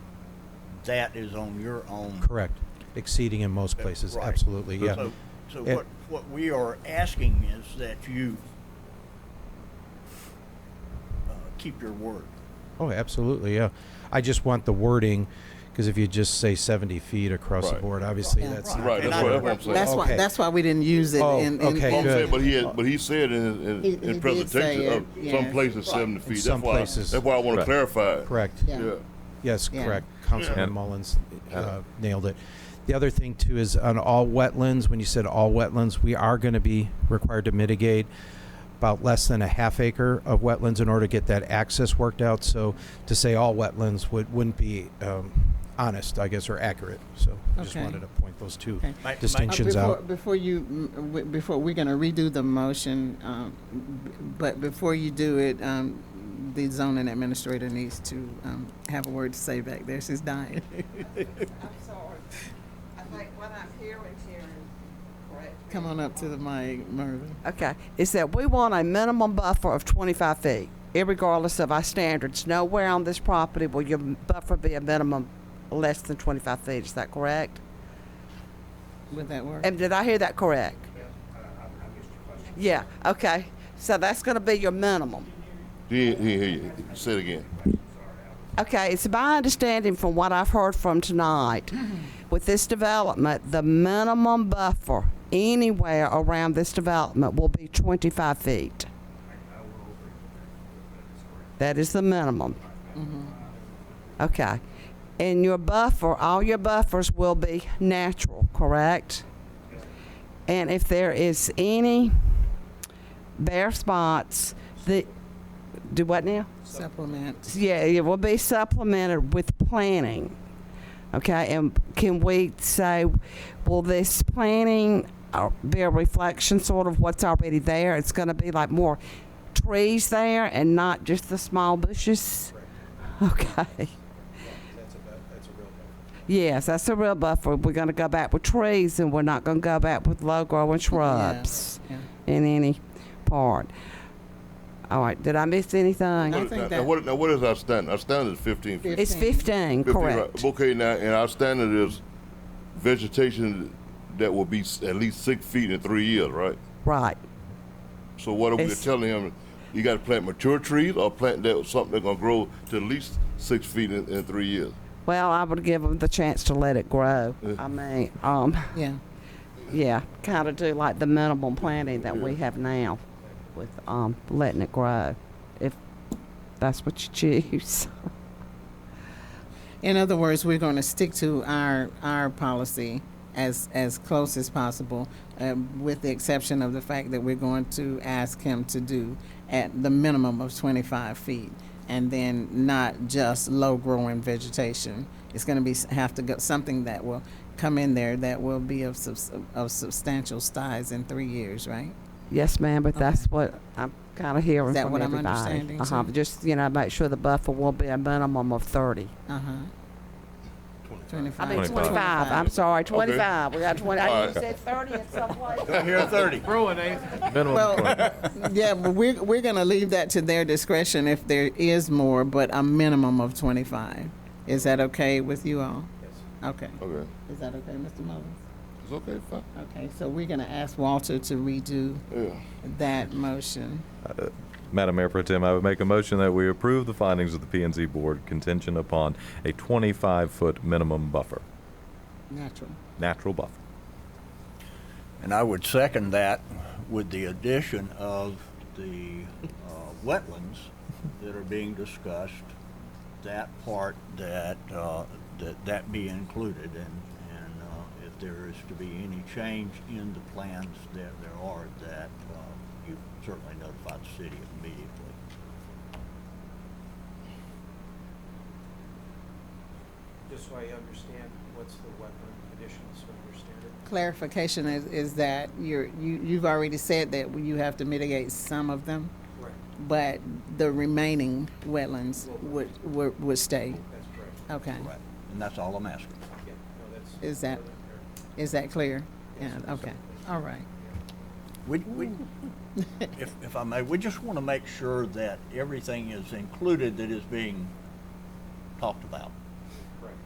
that is on your own. Correct. Exceeding in most places, Right. absolutely, yeah. So, so It- what, what we are asking is that you uh, keep your word. Oh, absolutely, yeah. I just want the wording, because if you just say 70 feet across the Right. board, obviously Right. that's, Right, And that's I- what, that's what I'm saying. That's Okay. why. That's why we didn't use it Oh, in. in okay, Well, I'm in- good. saying, but he had, but he said in, in, He- he in did presentation say of it, yeah. some places seventy feet. That's some why, places. that's why I want to Right. clarify it. correct. Yeah. Yeah. Yes, Yeah. correct. Councilman Yeah. Mullins uh, nailed it. The other thing too is on all wetlands, when you said all wetlands, we are going to be required to mitigate about less than a half acre of wetlands in order to get that access worked out. So to say all wetlands would, wouldn't be um, honest, I guess, or accurate. So I just Okay. wanted to point those two Okay. My- my- Uh, distinctions before, out. before you, mm, w- before we're gonna redo the motion, um, b- but before you do it, um, the zoning administrator needs to um, have a word to say back there. She's dying. I'm sorry. I think what I'm hearing, Sharon, correct? me. Come on up to the mic, Mervin. Okay, is that we want a minimum buffer of 25 feet, irregardless of our standards. Nowhere on this property will your buffer be a minimum less than 25 feet, is that correct? Would that work? And did I hear that correct? Yeah, okay. So that's going to be your minimum. He, he, he, say it again. Okay, it's my understanding from what I've heard from tonight, with this development, the minimum buffer anywhere around this development will be 25 feet. That is the minimum. Okay. And your buffer, all your buffers will be natural, correct? And if there is any bare spots, the, do what now? Supplement. yeah, it will be supplemented with planning. Okay, and can we say, will this planning uh, be a reflection sort of what's already there? It's going to be like more trees there and not just the small bushes? Okay. Yes, that's a real buffer. We're going to go back with trees and we're not going to go back with low growing shrubs Yeah. in any part. All right, did I miss anything? I What- think now- that- Now, what, now what is our standard? Our standard is fifteen feet. It's 15, 15, right. correct. Okay, now, and our standard is vegetation that will be s- at least six feet in three years, right? Right. So what are we It's- telling him? You got to plant mature trees or plant that something that's gonna grow to at least six feet in, in three years. Well, I would give them the chance to let it grow. I mean, um, Yeah. yeah, kind of do like the minimum planting that we have now with um, letting it grow, if that's what you choose. In other words, we're going to stick to our, our policy as, as close as possible, um, with the exception of the fact that we're going to ask him to do at the minimum of 25 feet, and then not just low-growing vegetation. It's going to be, have to go, something that will come in there that will be of, subs- of substantial size in three years, right? Yes, ma'am, but that's Okay. what I'm kind of hearing Is that from what I'm everybody. understanding, uh-huh. too? Just, you know, make sure the buffer will be a minimum of 30. Uh-huh. 25. I mean, 25. 25. I'm sorry, 25. We got 20. I Alright. you said 30 in some place. Here, thirty. Minimum Well- requirement. Yeah, but we're, we're going to leave that to their discretion if there is more, but a minimum of 25. Is that okay with you all? Okay. Okay, Is that okay, Mr. Mullins? it's okay, fine. Okay, so we're going to ask Walter to redo Yeah. that motion. Madam Mayor Pro Tem, I would make a motion that we approve the findings of the P and Z Board contingent upon a 25-foot minimum buffer, Natural. natural buffer. And I would second that with the addition of the uh, wetlands that are being discussed, that part that, uh, that, that be included, and, and uh, if there is to be any change in the plans that there are, that uh, you certainly notify the city immediately. just so I understand what's the wetland conditions, so I understand it. Clarification is, is that you're, you, you've already said that you have to mitigate some of them, Correct. but the remaining wetlands would, would, would stay. That's correct. Okay. Right. And that's all I'm asking. Yeah, no, that's. Is that, is that clear? Yeah, okay. All right. We, we, if, if I may, we just want to make sure that everything is included that is being